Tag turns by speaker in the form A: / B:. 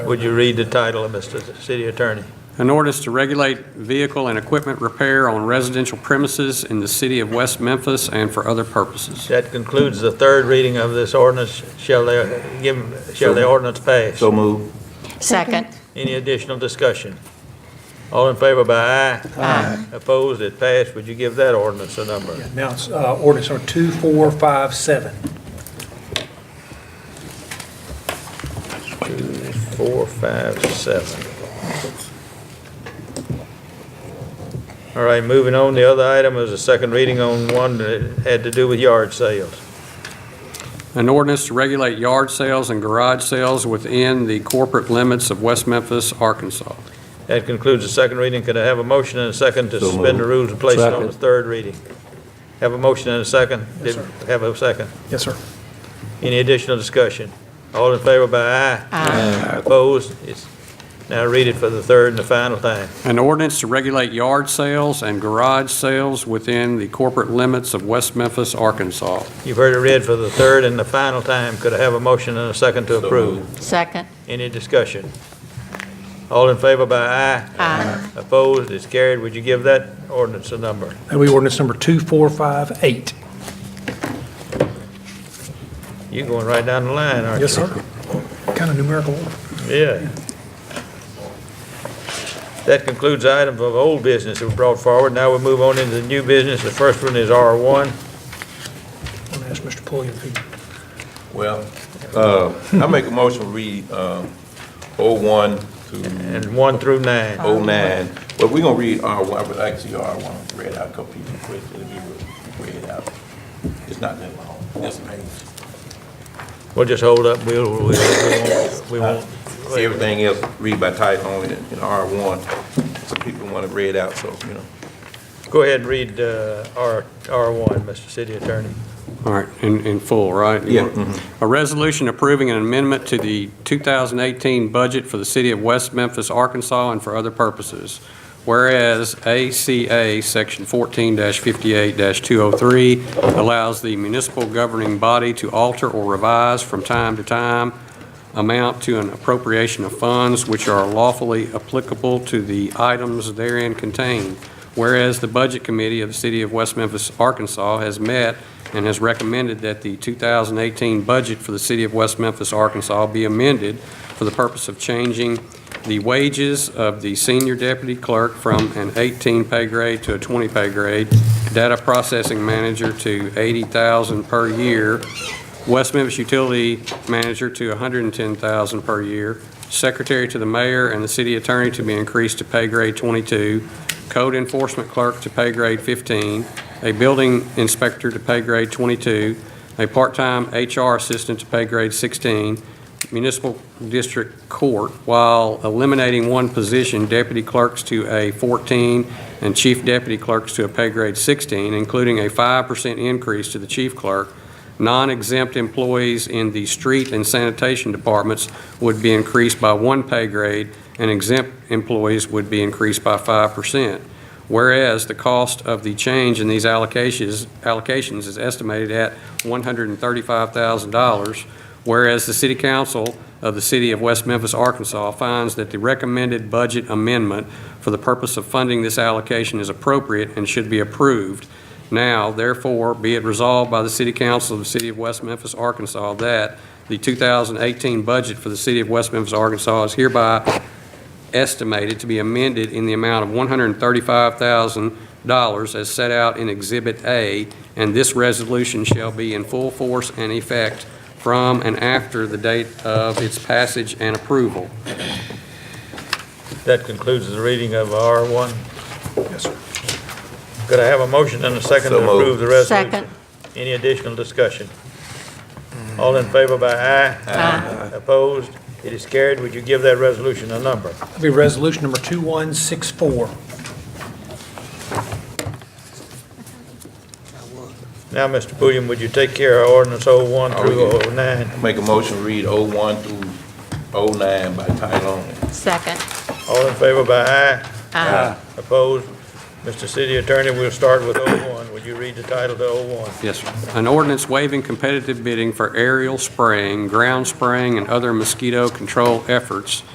A: Would you read the title, Mr. City Attorney?
B: An ordinance to regulate vehicle and equipment repair on residential premises in the city of West Memphis and for other purposes.
A: That concludes the third reading of this ordinance. Shall they give, shall the ordinance pass?
C: So move.
D: Second.
A: Any additional discussion? All in favor by aye? Aye. Opposed, it passed. Would you give that ordinance a number?
E: Now, it's uh, ordinance number 2457.
A: Two, four, five, seven. All right, moving on, the other item is a second reading on one that had to do with yard sales.
B: An ordinance to regulate yard sales and garage sales within the corporate limits of West Memphis, Arkansas.
A: That concludes the second reading. Could I have a motion and a second to
C: So
A: suspend the
C: moved.
A: rules and place it on the
C: Second.
A: third reading? Have a motion and a second?
E: Yes,
A: Did- Have a second.
E: Yes, sir.
A: Any additional discussion? All in favor by aye? Aye. Opposed? It's- Now read it for the third and the final time.
B: An ordinance to regulate yard sales and garage sales within the corporate limits of West Memphis, Arkansas.
A: You've heard it read for the third and the final time. Could I have a motion and a second to approve?
D: Second.
A: Any discussion? All in favor by aye?
D: Aye.
A: Opposed? It's carried. Would you give that ordinance a number?
E: That would be ordinance number 2458.
A: You're going right down the line, aren't you?
E: Yes, sir. Kind of numerical order.
A: Yeah. That concludes items of old business that were brought forward. Now we move on into the new business. The first one is R1.
E: I'm going to ask Mr. Pulliam if he
C: Well, uh, I make a motion to read uh, 01 to
A: and 1 through 9.
C: 09, but we're going to read R1, I would like to see R1 read out a couple people quick, let me read it out. It's not that long, that's a page.
A: We'll just hold up, we'll, we'll- we won't, we won't.
C: Everything else, read by title only in in R1, so people want to read out, so, you know.
A: Go ahead and read uh, R- R1, Mr. City Attorney.
B: All right, in, in full, right?
C: Yeah.
B: A resolution approving an amendment to the 2018 budget for the city of West Memphis, Arkansas, and for other purposes. Whereas ACA Section 14-58-203 allows the municipal governing body to alter or revise from time to time amount to an appropriation of funds which are lawfully applicable to the items therein contained. Whereas the Budget Committee of the City of West Memphis, Arkansas has met and has recommended that the 2018 budget for the City of West Memphis, Arkansas be amended for the purpose of changing the wages of the senior deputy clerk from an 18 pay grade to a 20 pay grade, data processing manager to 80,000 per year, West Memphis utility manager to 110,000 per year, secretary to the mayor and the city attorney to be increased to pay grade 22, code enforcement clerk to pay grade 15, a building inspector to pay grade 22, a part-time HR assistant to pay grade 16, municipal district court, while eliminating one position, deputy clerks to a 14 and chief deputy clerks to a pay grade 16, including a 5% increase to the chief clerk. Non-exempt employees in the street and sanitation departments would be increased by one pay grade, and exempt employees would be increased by 5%. Whereas the cost of the change in these allocations, allocations is estimated at $135,000, whereas the City Council of the City of West Memphis, Arkansas finds that the recommended budget amendment for the purpose of funding this allocation is appropriate and should be approved. Now, therefore, be it resolved by the City Council of the City of West Memphis, Arkansas, that the 2018 budget for the City of West Memphis, Arkansas is hereby estimated to be amended in the amount of $135,000 as set out in Exhibit A, and this resolution shall be in full force and effect from and after the date of its passage and approval.
A: That concludes the reading of R1.
E: Yes, sir.
A: Could I have a motion and a second to
C: So moved.
A: approve the resolution?
D: Second.
A: Any additional discussion? All in favor by aye? Aye. Opposed? It is carried. Would you give that resolution a number?
E: That'd be resolution number 2164.
A: Now, Mr. Pulliam, would you take care of ordinance 01
C: Oh,
A: through 09?
C: Make a motion to read 01 through 09 by title only.
D: Second. Uh,
A: All in favor by aye? Aye. Opposed? Mr. City Attorney, we'll start with 01. Would you read the title to 01?
B: Yes, sir. An ordinance waiving competitive bidding for aerial spraying, ground spraying, and other mosquito control efforts